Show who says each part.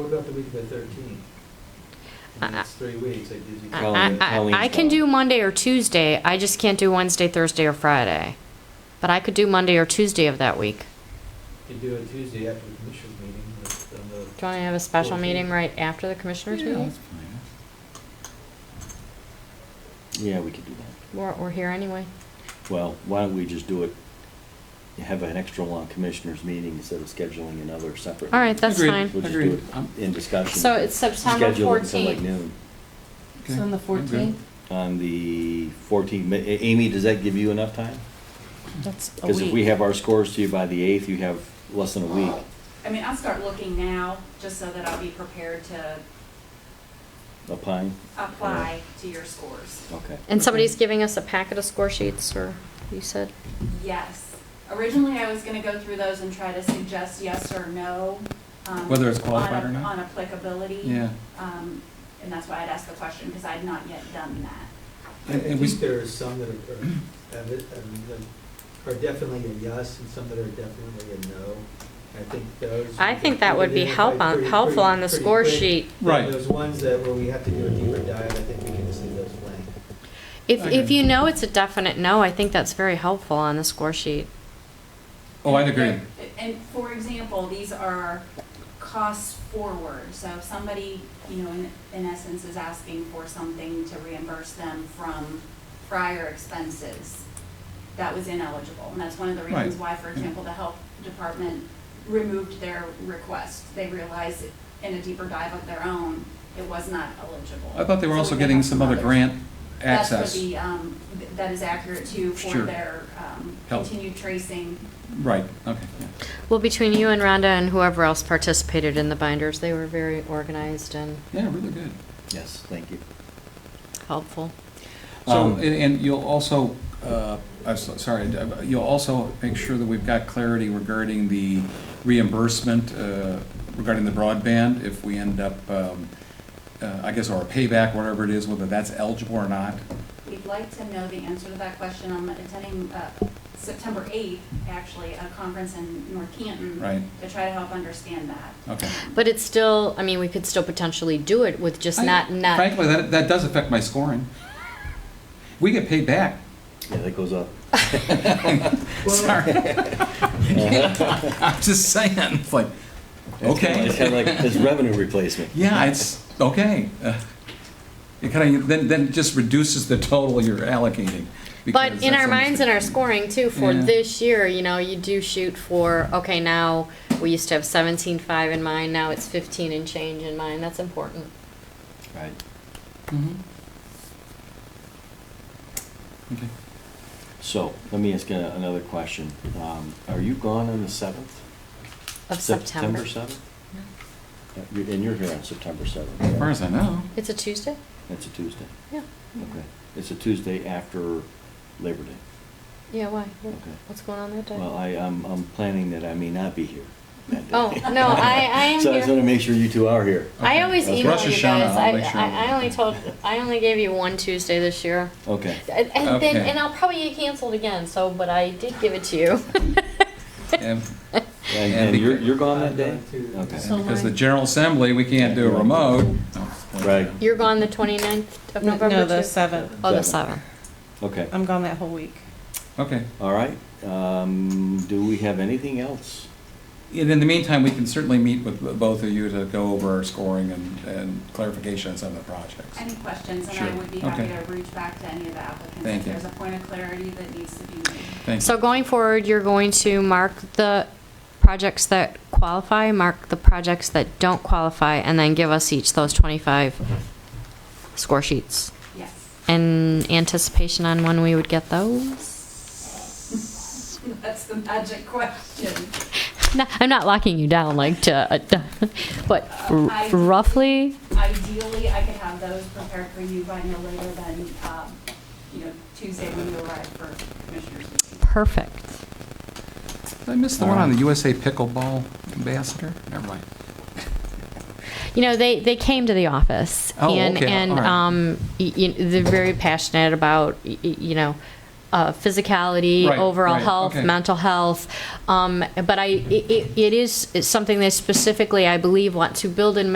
Speaker 1: about the week of the thirteenth?
Speaker 2: I-
Speaker 1: It's three weeks, it gives you.
Speaker 2: I-
Speaker 1: twelve
Speaker 2: I,
Speaker 1: days.
Speaker 2: I, I can do Monday or Tuesday, I just can't do Wednesday, Thursday, or Friday. But I could do Monday or Tuesday of that week.
Speaker 1: You do it Tuesday after the commissioners meeting, but on the.
Speaker 2: Do you want to have a special
Speaker 1: 14th.
Speaker 2: meeting right after the commissioners meeting?
Speaker 3: Yeah, we could do that.
Speaker 2: We're, we're here anyway.
Speaker 3: Well, why don't we just do it, have an extra long commissioners meeting instead of scheduling another separate.
Speaker 2: All right, that's
Speaker 4: Agreed.
Speaker 2: fine.
Speaker 3: We'll just do
Speaker 4: Agreed.
Speaker 3: it
Speaker 1: Um,
Speaker 4: I'm-
Speaker 3: in discussion.
Speaker 2: So it's September
Speaker 3: Schedule it until like
Speaker 2: 14th.
Speaker 3: noon.
Speaker 4: Okay.
Speaker 5: So on the
Speaker 4: I'm good.
Speaker 5: fourteenth?
Speaker 3: On the fourteenth, Ma- A- Amy, does that give you enough time?
Speaker 2: That's a
Speaker 3: Because if we
Speaker 2: week.
Speaker 3: have our scores to you by the eighth, you have less than a week.
Speaker 6: I mean, I'll start looking now, just so that I'll be prepared to
Speaker 3: A pine?
Speaker 6: apply to your scores.
Speaker 3: Okay.
Speaker 2: And somebody's giving us a packet of score sheets, or you said?
Speaker 6: Yes. Originally, I was gonna go through those and try to suggest yes or no. um,
Speaker 4: Whether it's qualified
Speaker 6: on-
Speaker 4: or not?
Speaker 6: On applicability.
Speaker 4: Yeah.
Speaker 6: Um, and that's why I'd asked the question, because I had not yet done that.
Speaker 1: I I
Speaker 4: And- and we-
Speaker 1: think there are some that are, are- have it- um, that are definitely a yes and some that are definitely a no. I think those.
Speaker 2: I think that would be help on-
Speaker 1: Pretty-
Speaker 2: helpful on the
Speaker 1: pretty-
Speaker 2: score
Speaker 1: pretty quick.
Speaker 2: sheet.
Speaker 4: Right.
Speaker 1: Those ones that where we have to do a deeper dive, I think we can just leave those blank.
Speaker 2: If, if
Speaker 4: Okay.
Speaker 2: you know it's a definite no, I think that's very helpful on the score sheet.
Speaker 4: Oh, I'd agree.
Speaker 6: And for example, these are costs forward, so if somebody, you know, in, in essence is asking for something to reimburse them from prior expenses, that was ineligible, and that's one of the reasons
Speaker 4: Right.
Speaker 6: why, for example, the health department removed their request. They realized in a deeper dive of their own, it was not eligible.
Speaker 4: I thought they were
Speaker 6: So
Speaker 4: also
Speaker 6: we
Speaker 4: getting
Speaker 6: have
Speaker 4: some other
Speaker 6: others.
Speaker 4: grant
Speaker 6: That's
Speaker 4: access.
Speaker 6: for the, um, th- that is accurate too, for
Speaker 4: Sure.
Speaker 6: their, um,
Speaker 4: Help.
Speaker 6: continued tracing
Speaker 4: Right, okay. yeah.
Speaker 2: Well, between you and Rhonda and whoever else participated in the binders, they were very organized and
Speaker 4: Yeah, really good.
Speaker 3: Yes, thank you.
Speaker 2: helpful.
Speaker 4: So,
Speaker 3: Um,
Speaker 4: and, and you'll also, uh, I'm so- sorry, d- you'll also make sure that we've got clarity regarding the reimbursement, uh, regarding the broadband, if we end up, um, uh, I guess, or a payback, whatever it is, whether that's eligible or not.
Speaker 6: We'd like to know the answer to that question. I'm attending uh, September 8th, actually, a conference in North Canton.
Speaker 4: Right.
Speaker 6: To try to help understand that.
Speaker 4: Okay.
Speaker 2: But it's still, I mean, we could still potentially do it with just
Speaker 4: I-
Speaker 2: not, not,
Speaker 4: Frankly, that, that does affect my scoring. We get paid back.
Speaker 3: Yeah, that goes up.
Speaker 4: Sorry. I'm just saying, it's like,
Speaker 3: It's kinda- It's kind
Speaker 4: okay.
Speaker 3: of like, it's revenue replacement.
Speaker 4: Yeah, it's, okay. Uh, It kind of, then, then it just reduces the total you're allocating.
Speaker 2: but
Speaker 4: because
Speaker 2: in
Speaker 4: that's
Speaker 2: our minds and our scoring too, for
Speaker 4: Yeah.
Speaker 2: this year, you know, you do shoot for, okay, now, we used to have seventeen five in mind, now it's fifteen and change in mind, that's important.
Speaker 3: Right.
Speaker 4: Mhm. Okay.
Speaker 3: So, let me ask you another question. Um, Are you gone on the seventh?
Speaker 2: Of September.
Speaker 3: September 7th? And you're here on September 7th?
Speaker 4: As far as I know.
Speaker 2: It's a Tuesday?
Speaker 3: That's a Tuesday,
Speaker 2: Yeah.
Speaker 3: okay. It's a Tuesday after Labor Day.
Speaker 2: Yeah, why? What-
Speaker 3: Okay.
Speaker 2: What's going on that day?
Speaker 3: Well, I, I'm, I'm planning that I may not be here that day.
Speaker 2: Oh, no, I- I am
Speaker 3: So I just
Speaker 2: here.
Speaker 3: want to make sure you two are here.
Speaker 2: I
Speaker 4: Okay.
Speaker 2: always
Speaker 3: Well,
Speaker 2: email
Speaker 4: Rosh
Speaker 2: you
Speaker 4: Hashanah,
Speaker 2: guys.
Speaker 4: I'll
Speaker 2: I,
Speaker 4: make sure.
Speaker 2: I, I only told, I only gave you one Tuesday this year.
Speaker 3: Okay.
Speaker 2: And, and then,
Speaker 4: Okay.
Speaker 2: and I'll probably get canceled again. So, but I did give it to you.
Speaker 4: And
Speaker 3: And,
Speaker 4: And
Speaker 3: and you're,
Speaker 4: because-
Speaker 3: you're gone
Speaker 1: Uh,
Speaker 3: that day?
Speaker 1: I'm gone too.
Speaker 3: Okay.
Speaker 5: So-
Speaker 4: because
Speaker 5: my-
Speaker 4: the General Assembly, we can't do a remote.
Speaker 3: Right.
Speaker 2: You're gone the 29th of November.
Speaker 5: No, the
Speaker 2: too?
Speaker 5: seventh.
Speaker 2: Oh, the
Speaker 3: Seven.
Speaker 2: seventh.
Speaker 3: Okay,
Speaker 5: I'm gone that whole week.
Speaker 4: Okay.
Speaker 3: all right. Um, do we have anything else?
Speaker 4: And in the meantime, we can certainly meet with both of you to go over our scoring and, and clarification on some of the projects.
Speaker 6: Any questions? And
Speaker 4: Sure.
Speaker 6: I would be happy
Speaker 4: Okay.
Speaker 6: to reach back to any of the applicants.
Speaker 4: Thank
Speaker 6: If
Speaker 4: you.
Speaker 6: there's a point of clarity that needs to be made.
Speaker 4: Thank you.
Speaker 2: So going forward, you're going to mark the projects that qualify, mark the projects that don't qualify, and then give us each those 25 score sheets.
Speaker 6: Yes.
Speaker 2: In anticipation on when we would get those.
Speaker 6: That's the magic question.
Speaker 2: No, I'm not locking you down, like to, uh, but r-
Speaker 6: I-
Speaker 2: roughly.
Speaker 6: Ideally, I could have those prepared for you by no later than, um, you know, Tuesday when you arrive for commissioners. meeting.
Speaker 2: Perfect.
Speaker 4: Did I miss the one on the USA pickleball ambassador? Never mind.
Speaker 2: You know, they, they came to the office
Speaker 4: Oh,
Speaker 2: and
Speaker 4: okay,
Speaker 2: and
Speaker 4: all right.
Speaker 2: um, y- y- they're very passionate about y- y- you know. Uh, physicality,
Speaker 4: Right,
Speaker 2: overall
Speaker 4: right,
Speaker 2: health,
Speaker 4: okay.
Speaker 2: mental health, um, but I, it, it- it is it's something they specifically, I believe, want to build in